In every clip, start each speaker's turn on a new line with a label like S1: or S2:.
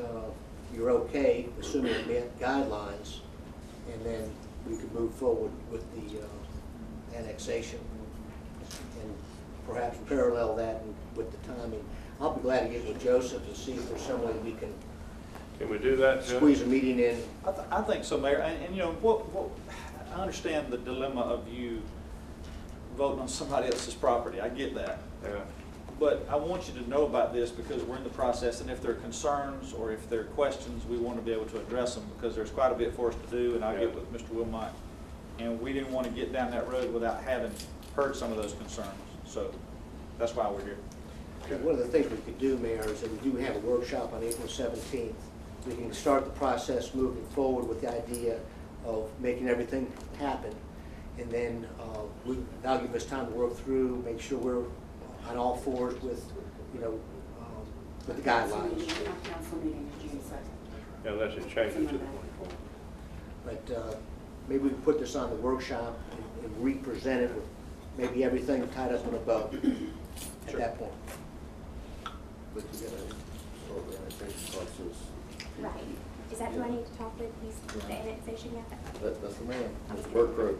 S1: uh, you're okay, assuming it met guidelines, and then we could move forward with the uh, annexation. And perhaps parallel that with the timing. I'll be glad to get with Joseph to see if there's some way we can
S2: Can we do that, Judge?
S1: squeeze a meeting in.
S3: I, th- I think so, Mayor, and, and you know, what, what, I understand the dilemma of you voting on somebody else's property, I get that.
S2: Yeah.
S3: But I want you to know about this because we're in the process, and if there are concerns or if there are questions, we want to be able to address them because there's quite a bit for us to do, and I'll get
S2: Yeah.
S3: with Mr. Wilmot. And we didn't want to get down that road without having heard some of those concerns, so that's why we're here.
S1: And One of the things we could do, Mayor, is that we do have a workshop on April seventeenth. We can start the process moving forward with the idea of making everything happen. And then, uh, we, that'll give us time to work through, make sure we're on all fours with, you know, um, with the
S4: Council
S1: guidelines.
S4: meeting- Our council meeting is June second.
S2: Unless it changes to the twenty-fourth.
S1: But, uh, maybe we can put this on the workshop and- and re-present it with maybe everything tied up in a bow at
S3: Sure.
S1: that point.
S5: But you gotta, all the annexation process,
S6: Right. Is that who I need to talk with? He's the annexation guy?
S5: that, that's the man, it's work road.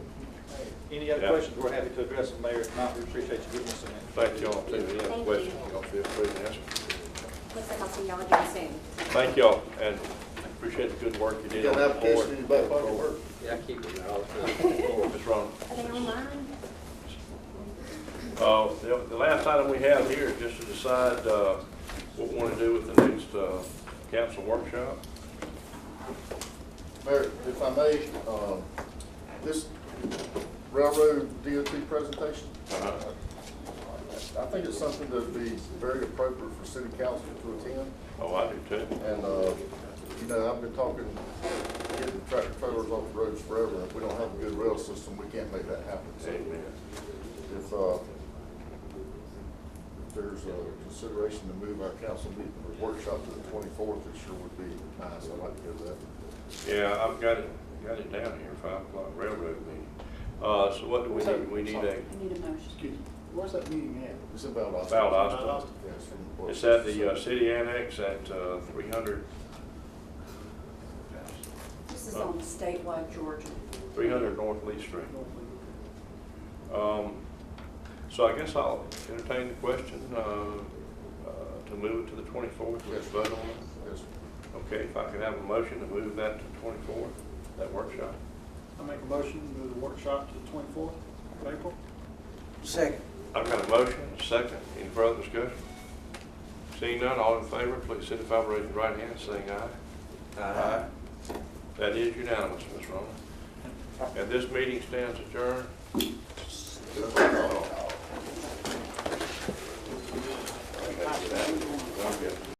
S3: Any other
S2: Yeah.
S3: questions, we're happy to address them, Mayor. If not, we appreciate you giving us some info.
S2: Thank y'all, too, any other
S6: Thank
S2: questions,
S6: you.
S2: y'all feel free to ask.
S6: Looks like I'll see y'all again soon.
S2: Thank y'all, and appreciate the good work you
S5: You
S2: did
S5: got
S2: on
S5: an
S2: the
S5: application in your
S2: board.
S5: back pocket, work.
S7: Yeah, I keep them there all the time.
S2: Ms. Ron.
S6: Are they online?
S2: Uh, the, the last item we have here is just to decide, uh, what we want to do with the next, uh, council workshop.
S5: Mayor, if I may, um, this railroad DOT presentation,
S2: Uh-huh.
S5: I think it's something that'd be very appropriate for city council to attend.
S2: Oh, I do too.
S5: And, uh, you know, I've been talking, getting tractor trailers off the roads forever. If we don't have a good rail system, we can't make that happen. So
S2: Amen.
S5: If, uh, if there's a consideration to move our council meeting or workshop to the twenty-fourth, it sure would be nice. I'd like to do that.
S2: Yeah, I've got it, got it down here, five o'clock railroad meeting. Uh, so what do we need? We need a,
S4: I need a motion.
S5: Excuse me, where's that meeting at? It's in Valdosta.
S2: Valdosta.
S5: Yeah, it's from the-
S2: it's at the, uh, city annex at, uh, three hundred,
S4: This is on statewide Georgia.
S2: three hundred North Lee Street. Um, so I guess I'll entertain the question, uh, uh, to move it to the twenty-fourth, let's vote on it.
S5: Yes.
S2: Okay, if I could have a motion to move that to twenty-fourth, that workshop.
S8: I make a motion to move the workshop to the twenty-fourth of April.
S1: Second.
S2: I've got a motion, a second, any further discussion? Seeing none, all in favor, please signify by raising your right hand, saying aye. Aye. That is unanimous, Ms. Rowland. And this meeting stands adjourned.